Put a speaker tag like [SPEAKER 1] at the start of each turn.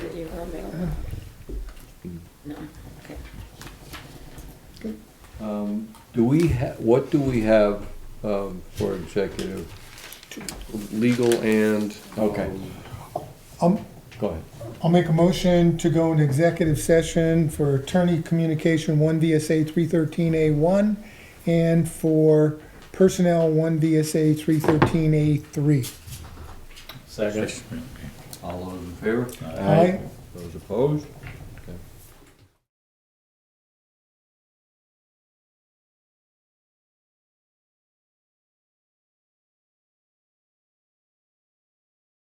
[SPEAKER 1] on there? No, okay.
[SPEAKER 2] Um, Do we, ha- what do we have um, for executive?
[SPEAKER 3] Legal and.
[SPEAKER 2] Okay.
[SPEAKER 3] um,
[SPEAKER 4] I'll,
[SPEAKER 2] Go ahead.
[SPEAKER 4] I'll make a motion to go into executive session for attorney communication, one VSA three thirteen A one, and for personnel, one VSA three thirteen A three.
[SPEAKER 5] Second.
[SPEAKER 2] All those in favor?
[SPEAKER 4] Aye.
[SPEAKER 2] Those opposed?